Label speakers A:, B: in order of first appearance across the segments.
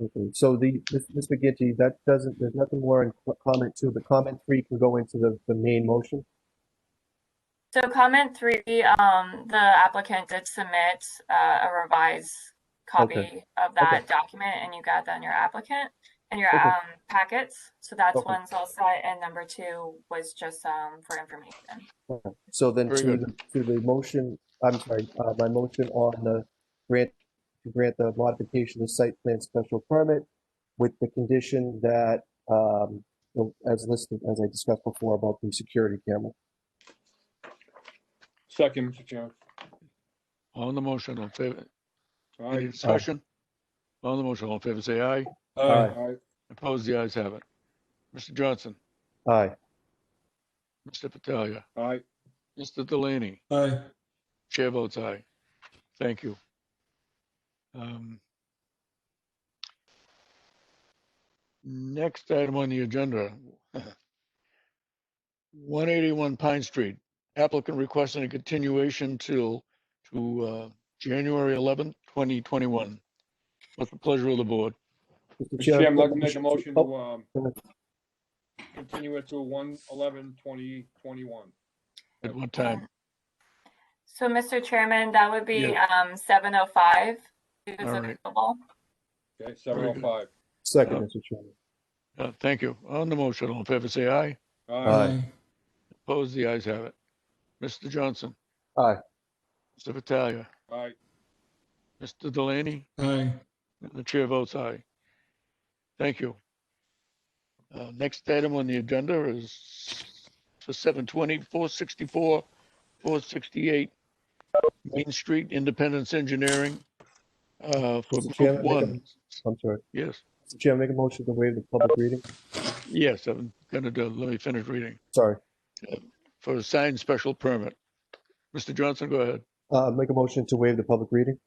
A: Okay, Mm-hmm. so the, Ms. Ms. McGinty, that doesn't, there's nothing more in co- comment two, but comment three can go into the, the main motion.
B: So comment three, um, the applicant did submit, uh, a revised copy of that document and you got that in your applicant and your,
A: Okay.
B: um, packets. So that's
A: Okay.
B: one's all set and number two was just, um, for information.
A: So then
C: Very
A: to,
C: good.
A: the- to the motion, I'm sorry, uh, my motion on the grant, to grant the modification of the site plan special permit with the condition that, um, you know, as listed, as I discussed before about the security camera.
C: Second, Mr. Chairman.
D: On the motion, on favor,
C: All
D: any
C: right.
D: discussion? On the motion, all in favor, say aye.
A: Aye.
C: All right.
D: Opposed, the ayes have it. Mr. Johnson,
A: Aye,
D: Mr. Patalia,
C: All right.
D: Mr. Delaney,
E: Aye.
D: chair votes aye. Thank you. Um, Next item on the agenda. 181 Pine Street, applicant requesting a continuation till, to uh, January 11th, 2021. What's the pleasure of the board?
A: Mr.
C: Mr. Chairman, I'd like to
A: Chairman,
C: make a motion
A: oh,
C: to, um, continue it to one eleven twenty twenty-one.
D: At what time?
B: So Mr. Chairman, that would be, um, seven oh five.
D: All right.
C: Okay, seven oh five.
A: Second, Mr. Chairman.
D: Uh, Thank you. On the motion, all in favor, say aye.
C: All
A: Aye.
C: right.
D: Opposed, the ayes have it. Mr. Johnson,
A: Aye.
D: Mr. Vitalia,
C: All right.
D: Mr. Delaney,
E: Aye.
D: and the chair votes aye. Thank you. Uh, Next item on the agenda is for 720, 464, 468 Main Street Independence Engineering uh, for
A: Mr.
D: Group
A: Chairman, I make a-
D: One.
A: I'm sorry.
D: Yes,
A: Mr. Chairman, make a motion to waive the public reading.
D: yes, I'm going to do, let me finish reading.
A: Sorry.
D: For a signed special permit. Mr. Johnson, go ahead.
A: Uh, make a motion to waive the public reading.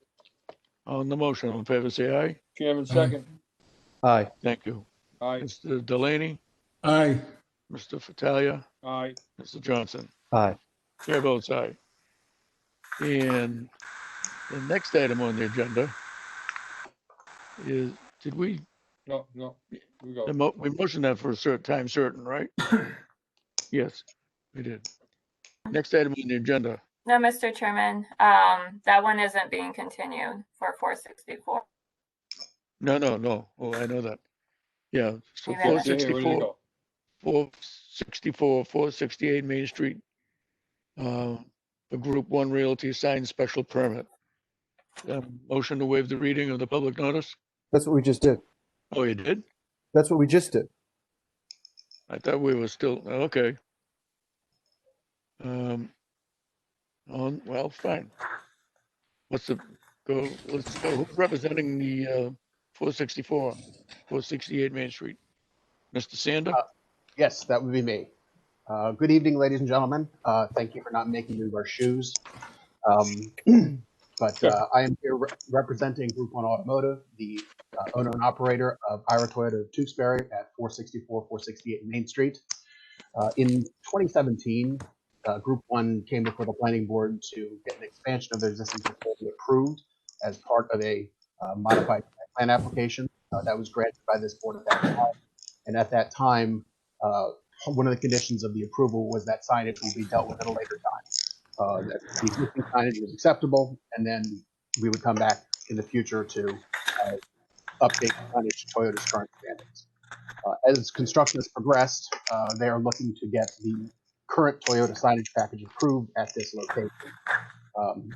D: On the motion, all in favor, say aye.
C: Chairman, second.
A: Aye.
D: Thank you.
C: All right.
D: Mr. Delaney,
E: Aye.
D: Mr. Fattalia,
C: All right.
D: Mr. Johnson.
A: Aye.
D: Chair votes aye. And the next item on the agenda is, did we,
C: No, no. Here we go.
D: the mo- we motioned that for a certain time certain, right? Yes, we did. Next item on the agenda,
B: No, Mr. Chairman, um, that one isn't being continued for four sixty-four.
D: no, no, no, oh, I know that. Yeah, so
B: Wait a minute.
D: four
C: Yeah, yeah, ready to
D: sixty-four.
C: go.
D: 464, 468 Main Street. uh, The Group 1 Realty signed special permit. Um, Motion to waive the reading of the public notice?
A: That's what we just did.
D: Oh, you did?
A: That's what we just did.
D: I thought we were still, okay. Um, On, well, fine. What's the, go, let's go, who's representing the uh, 464, 468 Main Street? Mr. Sander?
F: Yes, that would be me. Uh, good evening, ladies and gentlemen. Uh, thank you for not making me wear shoes. Um, but uh, I am here re- representing Group One Automotive, the uh, owner and operator of Ira Toyota of Tewksbury at 464 468 Main Street. Uh, in 2017, uh, Group One came before the planning board to get an expansion of their existing facility approved as part of a uh, modified site plan application uh, that was granted by this board at that time. And at that time, uh, one of the conditions of the approval was that signage will be dealt with at a later time. Uh, that the existing signage was acceptable, and then we would come back in the future to, uh, update the signage to Toyota's current standards. Uh, as construction has progressed, uh, they are looking to get the current Toyota signage package approved at this location. Um,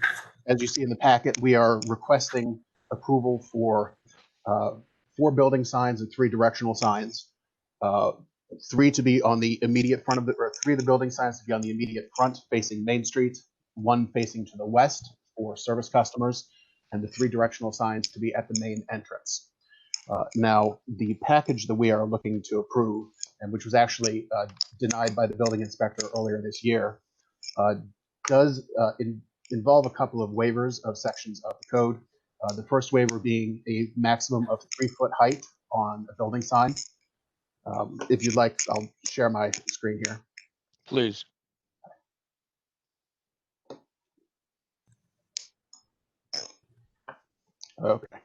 F: as you see in the packet, we are requesting approval for, uh, four building signs and three directional signs. Uh, three to be on the immediate front of the, or three of the building signs to be on the immediate front facing Main Street, one facing to the west for service customers, and the three directional signs to be at the main entrance. Uh, Now, the package that we are looking to approve, and which was actually uh, denied by the building inspector earlier this year, uh, does uh, in- involve a couple of waivers of sections of the code. Uh, The first waiver being a maximum of three-foot height on a building sign. Um, If you'd like, I'll share my screen here.
D: Please.
F: Okay.